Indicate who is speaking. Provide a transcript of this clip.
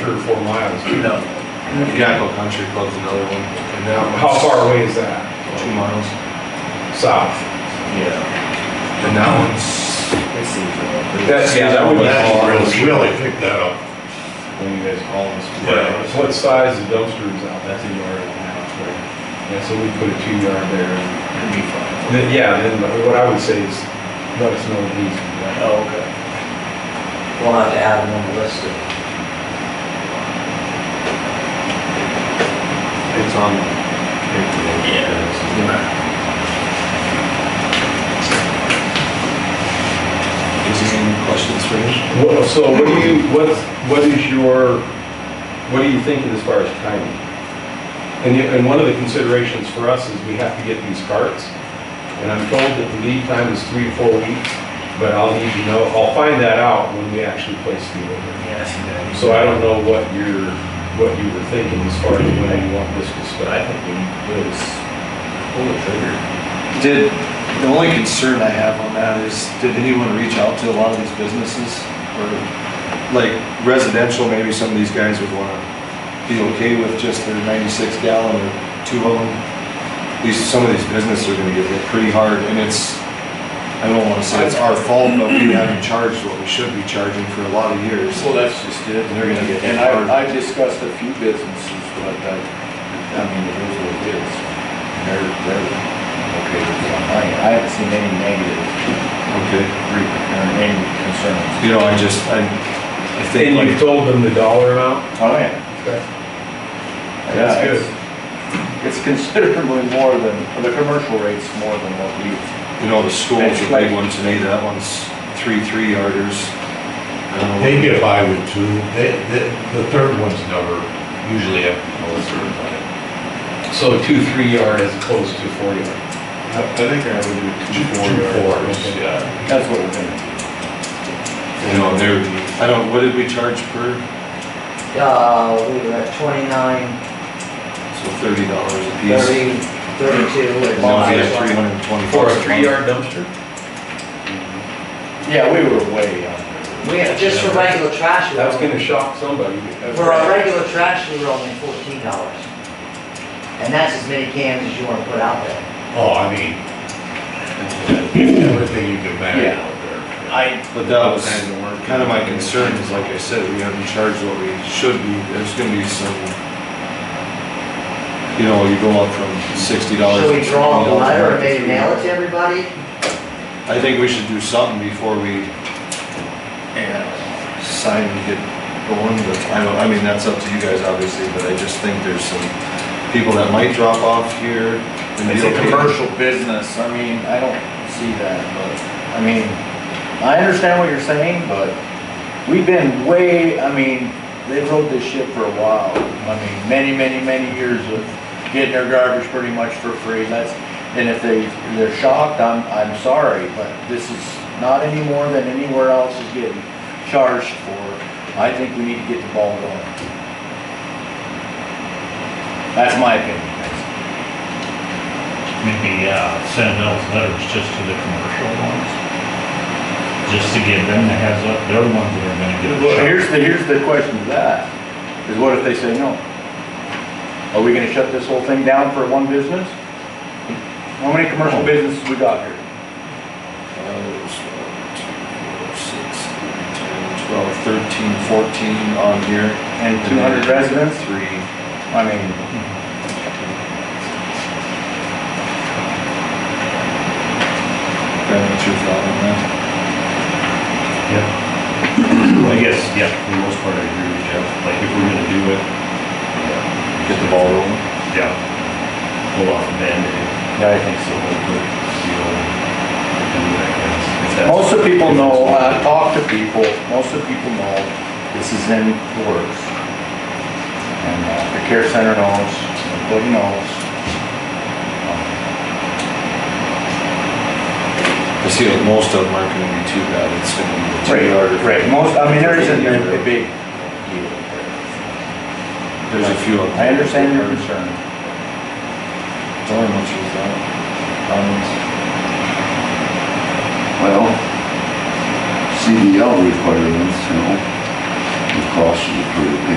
Speaker 1: three or four miles.
Speaker 2: No. Jackal Country Club's another one. And that one's
Speaker 1: How far away is that?
Speaker 2: Two miles.
Speaker 1: South?
Speaker 2: Yeah. And that one's.
Speaker 1: That's, yeah, that would be all
Speaker 3: That's
Speaker 1: ours.
Speaker 3: really, really picked that up.
Speaker 1: When you guys call us.
Speaker 3: Yeah.
Speaker 1: So What size is dumpsters out? That's a yard and a half, right? Yeah, so we put a two yard there.
Speaker 2: It'd be fine.
Speaker 1: And Then, yeah, then what I would say is, let us know these.
Speaker 2: Oh, okay.
Speaker 4: We'll have to add them on the list.
Speaker 2: It's on. Yeah. Is there any questions for me?
Speaker 1: Well, so what do you, what's, what is your, what are you thinking as far as timing? And, you- and one of the considerations for us is we have to get these carts. And I'm told that the lead time is three to four weeks, but I'll need to know, I'll find that out when we actually place the order.
Speaker 2: Yes.
Speaker 1: So I don't know what you're, what you were thinking as far as when you want this to
Speaker 2: But I
Speaker 1: start.
Speaker 2: think we need to just pull the trigger.
Speaker 5: Did, the only concern I have on that is, did anyone reach out to a lot of these businesses? Or, like residential, maybe some of these guys would wanna be okay with just their ninety-six gallon or two of them. These, some of these businesses are gonna get hit pretty hard, and it's, I don't wanna say it's our fault, but we haven't charged what we should be charging for a lot of years.
Speaker 6: Well, that's just it.
Speaker 5: They're gonna get
Speaker 6: And
Speaker 5: hard.
Speaker 6: I, I've discussed a few businesses, but I, I mean, it is what it is. They're, they're okay with it. I, I haven't seen any negative,
Speaker 5: Okay.
Speaker 6: re- or any concerns.
Speaker 5: You know, I just, I, I think
Speaker 1: And you
Speaker 5: like,
Speaker 1: told them the dollar amount?
Speaker 6: Oh, yeah.
Speaker 1: That's
Speaker 6: Yeah,
Speaker 1: good.
Speaker 6: it's- It's considerably more than, the commercial rate's more than what we,
Speaker 5: you know, the schools are big ones, and hey, that one's three, three yarders. I don't know.
Speaker 3: They get by with two, they, the, the third one's never, usually have a certified.
Speaker 1: So two, three yard as opposed to four yard.
Speaker 3: I I think I would do two,
Speaker 1: Two
Speaker 3: two
Speaker 1: fours.
Speaker 3: fours, yeah.
Speaker 6: that's what we're gonna,
Speaker 5: You know, they're, I don't, what did we charge per?
Speaker 4: Uh, we were at twenty-nine,
Speaker 5: So thirty dollars a piece.
Speaker 4: thirty, thirty-two.
Speaker 5: And now we have three hundred and twenty.
Speaker 1: For a three yard dumpster?
Speaker 6: yeah, we were way under.
Speaker 4: We have, just for regular trash, we
Speaker 1: That's
Speaker 4: were,
Speaker 1: gonna shock somebody.
Speaker 4: for our regular trash, we were only fourteen dollars. And that's as many cans as you wanna put out there.
Speaker 3: Oh, I mean, everything you can
Speaker 6: Yeah.
Speaker 3: manage out there.
Speaker 6: I,
Speaker 5: But that was kind of my concern, is like I said, we haven't charged what we should be. There's gonna be some, you know, you go up from sixty dollars.
Speaker 4: Should we draw up a letter and maybe mail it to everybody?
Speaker 5: I think we should do something before we sign and get going, but I don't, I mean, that's up to you guys, obviously, but I just think there's some people that might drop off here. and
Speaker 6: It's
Speaker 5: be
Speaker 6: a
Speaker 5: okay.
Speaker 6: commercial business, I mean, I don't see that, but, I mean, I understand what you're saying, but we've been way, I mean, they rode this ship for a while. I mean, many, many, many years of getting their garbage pretty much for free, that's, and if they, they're shocked, I'm, I'm sorry, but this is not any more than anywhere else is getting charged for. I think we need to get the ball going. That's my opinion.
Speaker 7: maybe uh, send those letters just to the commercial ones. Just to give them the heads up, they're the ones that are gonna get.
Speaker 6: Well, here's the, here's the question to that, is what if they say no? Are we gonna shut this whole thing down for one business? How many commercial businesses we got here?
Speaker 5: There's Uh, one, two, four, six, eight, ten, Twelve, thirteen, fourteen on here.
Speaker 6: And two hundred residents?
Speaker 5: Three.
Speaker 6: I mean,
Speaker 5: Kind of your thought on that?
Speaker 7: Yeah. I guess, yeah, for the most part, I agree with Jeff, like, if we're gonna do it,
Speaker 5: Get the ball rolling.
Speaker 7: yeah, pull off a Band-Aid,
Speaker 6: yeah, I think
Speaker 7: so we'll put, you know, and do that, I guess, if that's-
Speaker 6: Most of the people know, uh, I talk to people, most of the people know this is in the works. And uh, the care center knows, everybody knows.
Speaker 5: I see that most of them aren't gonna be too bad. It's gonna be the two yard.
Speaker 6: Right, most, I mean, there isn't a big deal there.
Speaker 5: There's a few of them.
Speaker 6: I understand your concern.
Speaker 5: Tell them what you thought.
Speaker 6: Um,
Speaker 8: Well, CDL requirements, you know, it costs you pretty penny